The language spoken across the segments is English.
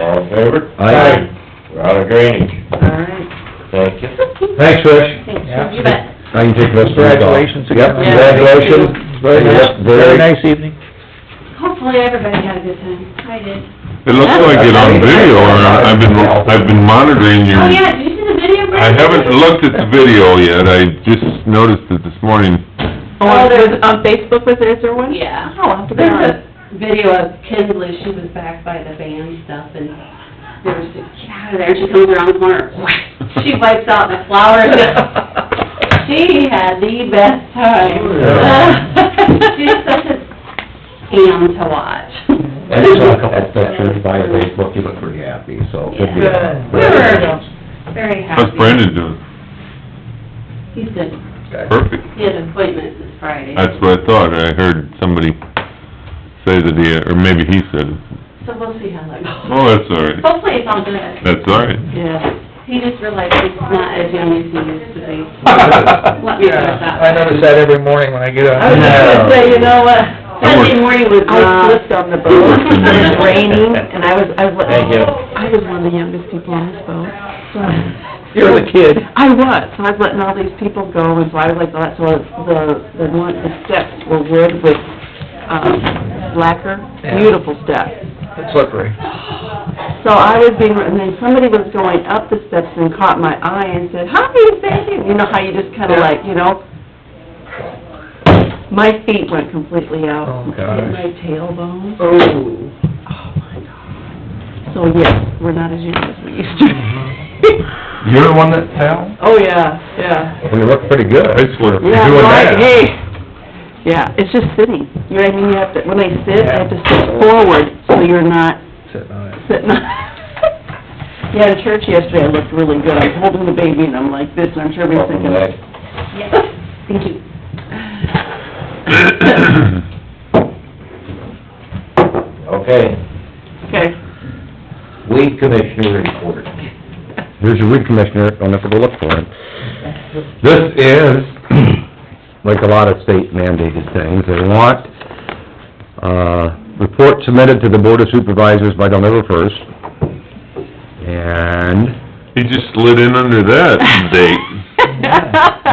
All in favor? Aye. We're out of drainage. All right. Thank you. Thanks, Rich. Thanks, Yeah. you bet. I can take this one off. Congratulations Yep, again. congratulations. Very nice, Yep, very very- nice evening. Hopefully everybody had a good time. I did. It looks like it on video, and I- I've been, I've been monitoring your... Oh, yeah, did you see the video, I Brad? haven't looked at the video yet, I just noticed it this morning. Oh, there's, on Facebook, was there, is there one? Yeah. Oh, I'll have to go There's on. a video of Kinsley, she was back by the band stuff, and there was, get out of there, she comes around the corner, she wipes out the flowers. She had the best Oh, time. Yeah. She's such a scam to watch. I just saw a couple of pictures by your Facebook, you look pretty happy, so. good deal. Yeah. We were very happy. How's Brandon doing? He's good. Perfect. He had an appointment this Friday. That's what I thought, I heard somebody say that he, or maybe he said, So we'll see how that goes. oh, that's all right, Hopefully it's all good. that's all right. Yeah. He just realized he's not as young as he used to be. Let me put it that way. I notice that every morning when I get I was up. just gonna say, you know what, worked- Sunday morning was, uh, I slipped on the boat, Uh, it was raining, and I was, I was, Thank you. I was one of the youngest people on this boat. so- You're the kid. I was, so I was letting all these people go, and so I was like, that's what, the, the one, the steps were wood with, um, lacquer, Yeah. beautiful steps. It's slippery. So I was being, and then somebody was going up the steps and caught my eye and said, "Hi, thank you," you know how you just kinda Yeah. like, you know? My feet went completely out. Oh, gosh. My tailbone. Oh. Oh, my God. So, yes, we're not as young as we used to be. Mm-hmm. You're the one that fell? Oh, yeah, yeah. You look pretty good. I swear. You're Yeah, doing right, that. Hey, yeah, it's just sitting, you know what I mean, you have to, when they sit, they have to sit forward, so you're not Sitting on it. sitting on... Yeah, in church yesterday, I looked really good. I was holding the baby, and I'm like this, and I'm sure everybody's thinking, Welcome back. thank you. Okay, Okay. weed commissioner report. Here's your weed commissioner, don't have to go look for him. This is, like a lot of state mandated things, they want, uh, report submitted to the board of supervisors by November first. And He just slid in under that date.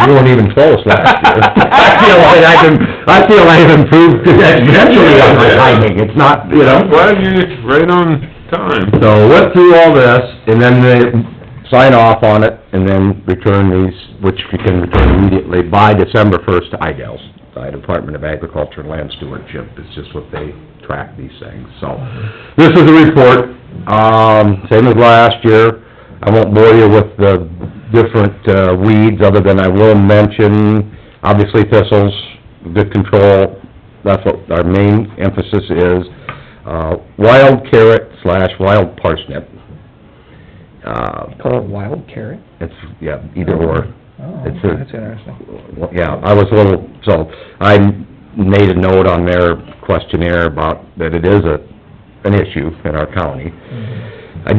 we weren't even close last year. I feel like I can, I feel I've improved exponentially on my timing, it's not, you know? I'm glad you're right on time. So went through all this, and then they sign off on it, and then return these, which you can return immediately by December first to IDALS, the Department of Agriculture and Land Stewardship, it's just what they track these things, so. This is the report, um, same as last year, I won't bore you with the different uh, weeds, other than I will mention, obviously thistles, good control, that's what our main emphasis is. Uh, wild carrot slash wild parsnip. Uh, Call it Oh, wild carrot? it's, yeah, either or. Oh, It's that's a- interesting. Well, Yeah, I was a little, so, I made a note on their questionnaire about that it is a, an issue in our county. I,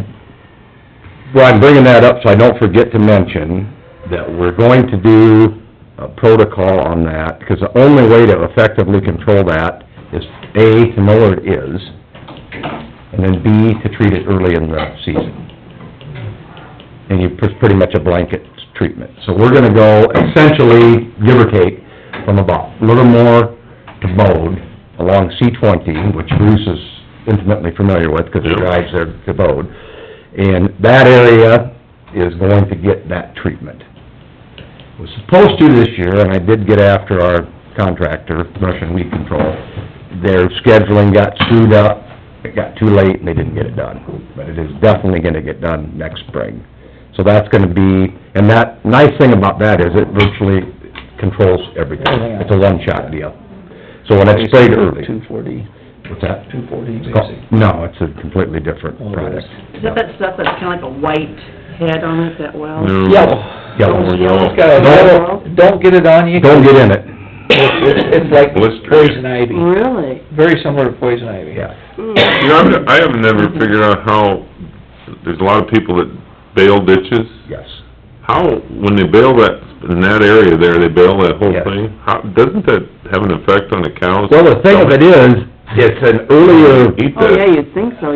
well, I'm bringing that up so I don't forget to mention that we're going to do a protocol on that, because the only way to effectively control that is, A, to know what it is, and then B, to treat it early in the season. And you, it's pretty much a blanket treatment. So we're gonna go essentially, give or take, from about a little more to Bode along C twenty, which Bruce is intimately familiar with, because he Yeah. drives there to Bode. And that area is going to get that treatment. It Was supposed to this year, and I did get after our contractor, Russian Weed Control. Their scheduling got screwed up, it got too late, and they didn't get it done. But it is definitely gonna get done next spring. So that's gonna be, and that, nice thing about that is it virtually controls everything. Everything else. It's a one-shot deal. So when it's sprayed early, Two forty, what's that? two forty It's called- basic. No, it's a completely different Oh, it product. Is that that stuff that's kinda like a white head on it, that well? No. Yellow. It's got a Don't- little, don't get it on you. Don't get in it. It's it's like Blister. poison ivy, Really? Hmm. very similar to poison ivy. Yeah. You know, I've- I have never figured out how, there's a lot of people that bail ditches. Yes. How, when they bail that, in that area there, they bail that whole Yes. thing, how, doesn't that have an effect on the cows? Well, the thing of it is, it's an earlier Eat Oh, that. yeah, you'd think so,